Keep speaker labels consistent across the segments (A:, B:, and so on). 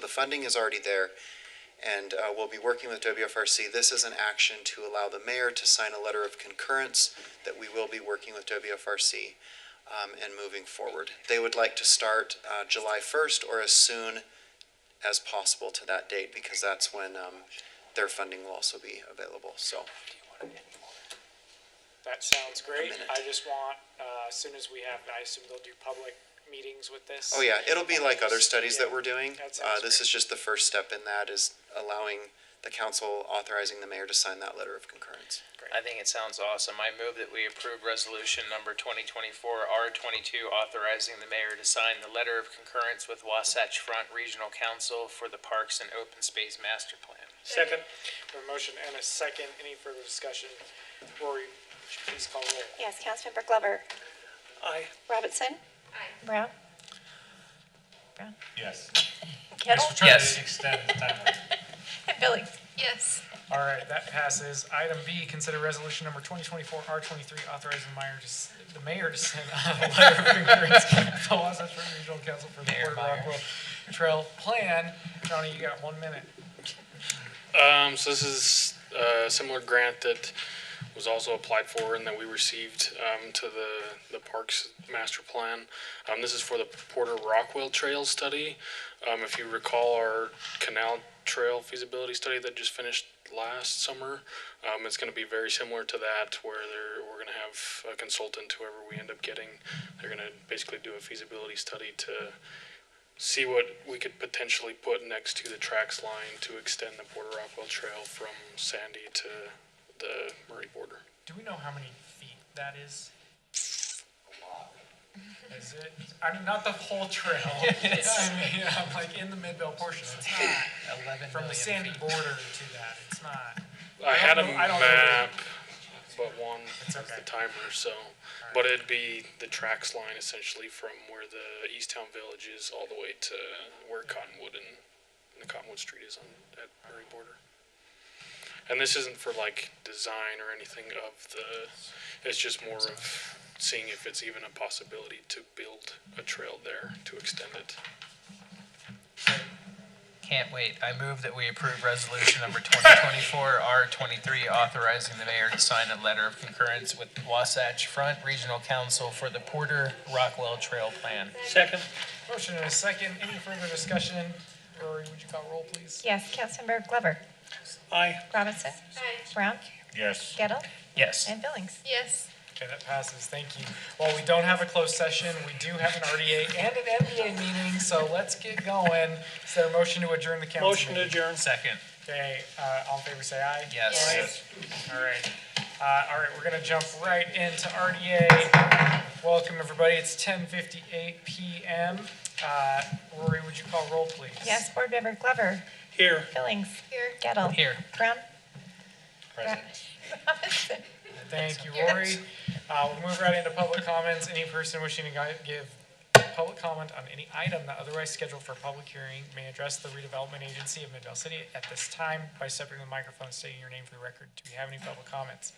A: the funding is already there. And uh, we'll be working with WFRC. This is an action to allow the mayor to sign a letter of concurrence that we will be working with WFRC um, and moving forward. They would like to start uh, July 1st or as soon as possible to that date because that's when um, their funding will also be available. So
B: That sounds great.
A: minute.
B: I just want, uh, as soon as we have, I assume they'll do public meetings with this.
A: Oh, yeah, it'll be like other studies that
B: Yeah.
A: we're doing.
B: That
A: Uh,
B: sounds
A: this is
B: great.
A: just the first step in that is allowing the council authorizing the mayor to sign that letter of concurrence.
C: I think it sounds awesome. I move that we approve resolution number twenty twenty-four R twenty-two authorizing the mayor to sign the letter of concurrence with Wasatch Front Regional Council for the Parks and Open Space Master Plan.
B: Second. A motion and a second. Any further discussion? Rory, please call roll.
D: Yes, Councilmember Glover.
B: Aye.
D: Robinson.
E: Brown?
F: Yes. Thanks
E: Kettle?
F: for trying
C: Yes.
F: to extend the timeline.
E: And Billy? Yes.
B: All right, that passes. Item B, consider resolution number 2024-R23 authorizing the mayor to, s- the mayor to send a letter of concurrence to the Wasatch Front Regional Council for the
C: Mayor
B: Port of
C: Myers.
B: Rockwell Trail Plan. Johnny, you got one minute.
G: Um, so this is uh, a similar grant that was also applied for and that we received um, to the, the parks master plan. Um, this is for the Porter Rockwell Trail study. Um, if you recall our canal trail feasibility study that just finished last summer, um, it's going to be very similar to that where they're, we're going to have a consultant, whoever we end up getting, they're going to basically do a feasibility study to see what we could potentially put next to the tracks line to extend the Porter Rockwell Trail from Sandy to the Murray border.
B: Do we know how many feet that is? Is it? I mean, not the whole trail. I mean, I'm like in the midvale portion. It's not
C: Eleven
B: from the sandy border to that. It's not.
G: I had a
B: don't know- I don't know.
G: map, but one is
B: okay.
G: the timer, so, but it'd be the tracks line essentially from where the East Town Village is all the way to where Cottonwood and, and the Cottonwood Street is on, at Murray border. And this isn't for like design or anything of the, it's just more of seeing if it's even a possibility to build a trail there to extend it.
C: Can't wait. I move that we approve resolution number twenty twenty-four R twenty-three authorizing the mayor to sign a letter of concurrence with Wasatch Front Regional Council for the Porter Rockwell Trail Plan.
B: Motion and a second. Any further discussion? Rory, would you call roll, please?
E: Yes, Councilmember Glover?
B: Aye.
E: Robinson? Brown?
F: Yes.
E: Gettle?
C: Yes.
E: And Billings? Yes.
B: Okay, that passes. Thank you. Well, we don't have a closed session. We do have an RDA and an MDA meeting, so let's get going. Is there a motion to adjourn the council? Motion to adjourn.
C: Second.
B: Okay, uh, all in favor, say aye.
C: Yes.
B: Aye. All right. Uh, all right, we're gonna jump right into RDA. Welcome, everybody. It's ten fifty-eight PM. Uh, Rory, would you call roll, please?
E: Yes, Board Member Glover?
B: Here.
E: Billings? Here. Gettle?
C: Here.
E: Brown?
F: Present.
E: Robinson?
B: Thank you,
E: Yes.
B: Rory. Uh, we'll move right into public comments. Any person wishing to gui- give public comment on any item not otherwise scheduled for a public hearing may address the redevelopment agency of Midvale City at this time by stepping to the microphone and stating your name for the record. Do we have any public comments?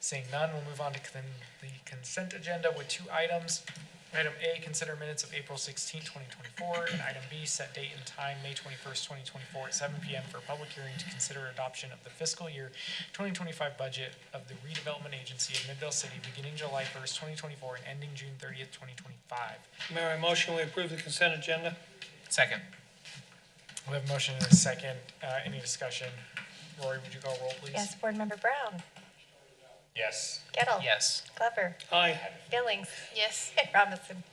B: Seeing none, we'll move on to con- the consent agenda with two items. Item A, consider minutes of April 16, 2024, and item B, set date and time, May 21st, 2024, at 7 PM for a public hearing to consider adoption of the fiscal year 2025 budget of the redevelopment agency of Midvale City beginning July 1st, 2024, and ending June 30th, 2025.
H: Mayor, I motion we approve the consent agenda.
C: Second.
B: We have a motion and a second. Uh, Any discussion? Rory, would you call roll, please?
E: Yes, Board Member Brown?
F: Yes.
E: Gettle?
C: Yes.
E: Glover?
H: Aye.
E: Billings? Yes. And Robinson?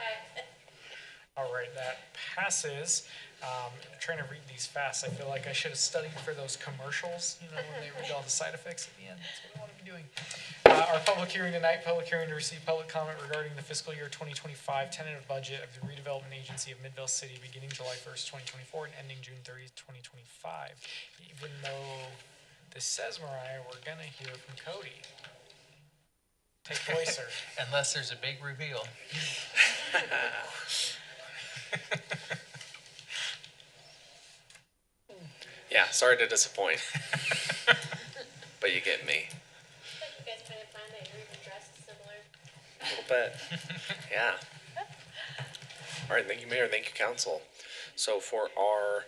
B: All right, that passes. Um, I'm trying to read these fast. I feel like I should have studied for those commercials, you know, when they read all the side effects at the end. That's what I want to be doing. Uh, our public hearing tonight, public hearing to receive public comment regarding the fiscal year 2025 tentative budget of the redevelopment agency of Midvale City beginning July 1st, 2024 and ending June 30th, 2025. Even though this says Mariah, we're gonna hear from Cody. Take it away, sir.
C: Unless there's a big reveal.
I: Yeah, sorry to disappoint. but you get me.
J: You guys trying to find that you're even dressed similar?
I: A little bit. Yeah. All right, thank you, Mayor. Thank you, Council. So for our